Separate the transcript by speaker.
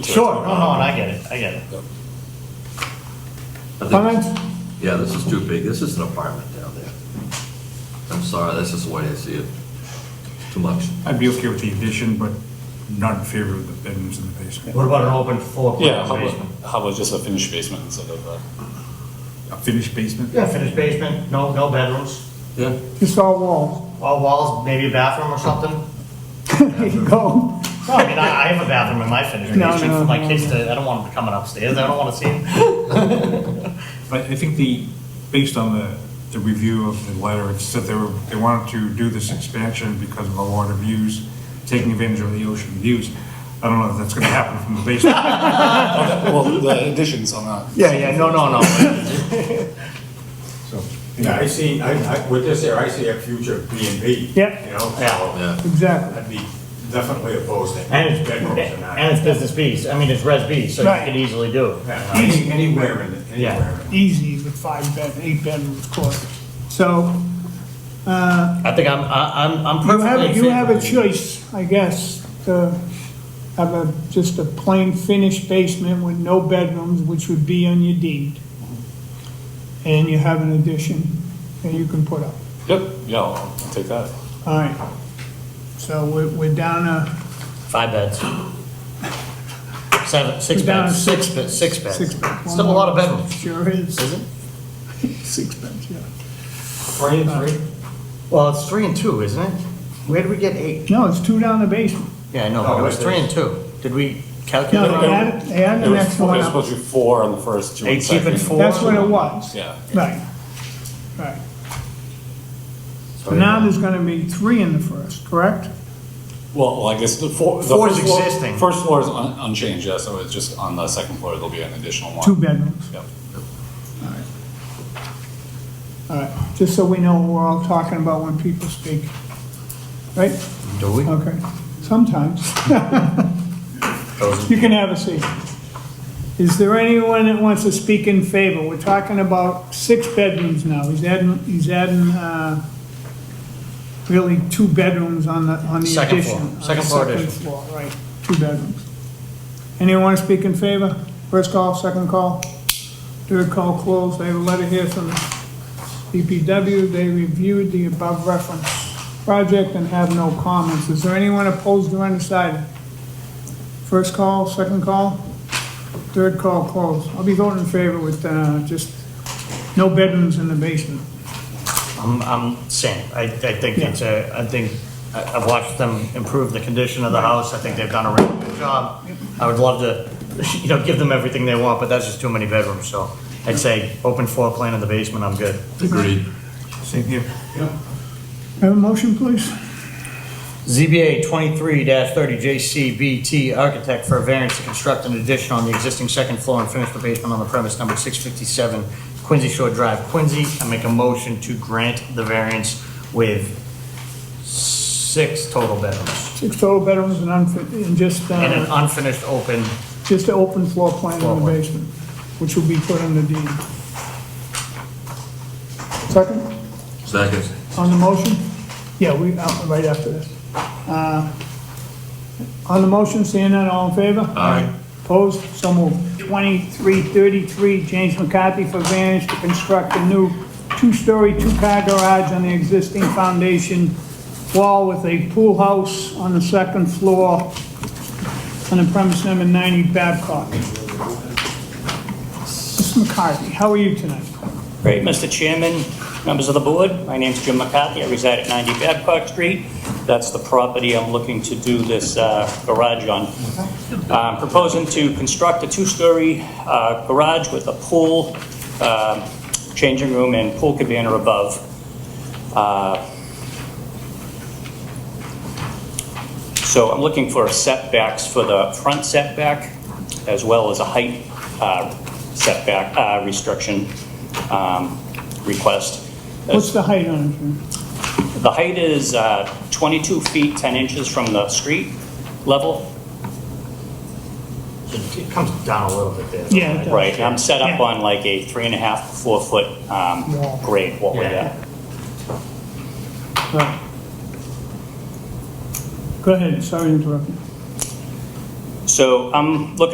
Speaker 1: Sure, no,
Speaker 2: Uh-huh.
Speaker 1: no, and I get it, I get it.
Speaker 3: I think-
Speaker 1: Comments?
Speaker 3: Yeah, this is too big. This is an apartment down there. I'm sorry, that's just the way I see it. Too much.
Speaker 4: I'd be okay with the addition, but not in favor of the bedrooms in the basement.
Speaker 1: What about an open floor
Speaker 2: Yeah,
Speaker 1: plan
Speaker 2: how about,
Speaker 1: basement?
Speaker 2: how about just a finished basement instead of a?
Speaker 4: A finished basement?
Speaker 1: Yeah, finished basement, no, no bedrooms,
Speaker 3: Yeah.
Speaker 5: It's all walls.
Speaker 1: all walls, maybe a bathroom or something.
Speaker 5: There you go.
Speaker 1: No, I mean, I, I have a bathroom in my finished
Speaker 5: No,
Speaker 1: basement for
Speaker 5: no,
Speaker 1: my
Speaker 5: no,
Speaker 1: kids to, I don't want them coming upstairs, I don't wanna see them.
Speaker 4: But I think the, based on the, the review of the letter, it said they were, they wanted to do this expansion because of the water views, taking advantage of the ocean views. I don't know if that's gonna happen from the basement.
Speaker 2: Well, the additions on that.
Speaker 5: Yeah, yeah, no, no, no.
Speaker 4: So,
Speaker 6: Yeah, I see, I, I, with this here, I see a future B and B.
Speaker 5: Yep.
Speaker 6: You know,
Speaker 3: Yeah.
Speaker 6: so
Speaker 5: Exactly.
Speaker 6: I'd be definitely opposed to
Speaker 1: And
Speaker 6: any
Speaker 1: it's,
Speaker 6: bedrooms in
Speaker 1: and
Speaker 6: that.
Speaker 1: it's business Bs, I mean, it's res B, so you
Speaker 5: Right.
Speaker 1: can easily do.
Speaker 6: Yeah, any- Anywhere in, the-
Speaker 1: Yeah.
Speaker 6: anywhere. in-
Speaker 5: Easy, the five bed, eight bedroom course. So
Speaker 1: I think I'm, I- I'm, I'm
Speaker 5: you
Speaker 1: perfectly in
Speaker 5: have, you
Speaker 1: favor
Speaker 5: have
Speaker 1: of
Speaker 5: a
Speaker 1: it.
Speaker 5: choice, I guess, to have a, just a plain finished basement with no bedrooms, which would be on your deed. And you have an addition that you can put up.
Speaker 2: Yep, yeah, I'll I'll take that.
Speaker 5: All right. So we're, we're down a,
Speaker 1: Five beds. Seven, six
Speaker 5: We're down
Speaker 1: beds,
Speaker 5: to
Speaker 1: six beds, six
Speaker 5: six
Speaker 1: beds.
Speaker 5: beds.
Speaker 1: Still a lot of bedrooms.
Speaker 5: Sure is.
Speaker 1: Is it?
Speaker 5: Six beds, yeah.
Speaker 1: Three and three? Well, it's three and two, isn't it? Where did we get eight?
Speaker 5: No, it's two down the basement.
Speaker 1: Yeah, I know, but it was three and two. Did we calculate?
Speaker 5: No,
Speaker 1: it?
Speaker 5: they added, they added
Speaker 2: It
Speaker 5: the
Speaker 2: was
Speaker 5: next
Speaker 2: four-
Speaker 5: one
Speaker 2: It was
Speaker 5: up.
Speaker 2: supposed to be four on the first, two on
Speaker 1: Hey,
Speaker 2: the
Speaker 1: keep it
Speaker 2: second.
Speaker 1: four.
Speaker 5: That's what it was.
Speaker 2: Yeah.
Speaker 5: Right, right. So now there's gonna be three in the first, correct?
Speaker 2: Well, well, I guess the four. the
Speaker 1: Four is
Speaker 2: first floor-
Speaker 1: existing.
Speaker 2: First floor is un- unchanged, yeah, so it's just on the second floor, there'll be an additional one.
Speaker 5: Two bedrooms,
Speaker 2: Yep.
Speaker 5: all right. Just so we know what we're all talking about when people speak, right?
Speaker 1: Do we?
Speaker 5: Okay, sometimes. You can have a seat. Is there anyone that wants to speak in favor? We're talking about six bedrooms now. He's adding, he's adding, uh, really two bedrooms on the, on the
Speaker 1: Second
Speaker 5: addition.
Speaker 1: floor.
Speaker 5: on the
Speaker 1: Second floor addition.
Speaker 5: Second floor, right, two bedrooms. Anyone want to speak in favor? First call, second call, third call closed. I have a letter here from DPW. They reviewed the above reference project and have no comments. Is there anyone opposed or undecided? First call, second call, third call closed. I'll be voting in favor with uh, just no bedrooms in the basement.
Speaker 1: I'm, I'm saying, I, I think
Speaker 5: Yeah.
Speaker 1: it's a, I think, I- I've watched them improve the condition of the house. I think they've done a really good job. I would love to, you know, give them everything they want, but that's just too many bedrooms, so I'd say open floor plan in the basement, I'm good.
Speaker 3: Agreed.
Speaker 4: same here.
Speaker 5: Have a motion, please?
Speaker 1: ZBA 23-30JCBT Architect for a variance to construct an addition on the existing second floor and finish the basement on the premise number 657 Quincy Shore Drive, Quincy. I make a motion to grant the variance with six total bedrooms
Speaker 5: Six total bedrooms and unfit, and just,
Speaker 1: and an
Speaker 5: uh,
Speaker 1: unfinished open.
Speaker 5: just an open floor plan
Speaker 1: Floor
Speaker 5: in the
Speaker 1: plan.
Speaker 5: basement, which will be put on the deed. Second?
Speaker 3: Second.
Speaker 5: On the motion? Yeah, we, uh, right after this. Uh, On the motion, seeing none, all in favor?
Speaker 3: Aye.
Speaker 5: Opposed? So moved. 2333, James McCarthy for variance to construct a new two-story, two-car garage on the existing foundation wall with a pool house on the second floor on the premise number 90 Babcock. Mr. McCarthy, how are you tonight?
Speaker 7: Great, Mr. Chairman, members of the board, my name's Jim McCarthy, I reside at 90 Babcock Street. That's the property I'm looking to do this uh, garage on. I'm proposing to construct a two-story uh, garage with a pool, um, changing room, and pool cabana above. Uh, So I'm looking for setbacks for the front setback, as well as a height uh, setback uh, restriction um, request.
Speaker 5: What's the height on it? Jim?
Speaker 7: The height is uh, 22 feet 10 inches from the street level.
Speaker 1: It it comes down a little bit there.
Speaker 5: Yeah, it does.
Speaker 7: Right, I'm set up
Speaker 5: Yeah.
Speaker 7: on like a three and a half, to four foot um,
Speaker 5: Wall.
Speaker 7: grade, what we're
Speaker 1: Yeah.
Speaker 7: at.
Speaker 5: Right. Go ahead, sorry to interrupt you.
Speaker 7: So um, I'm looking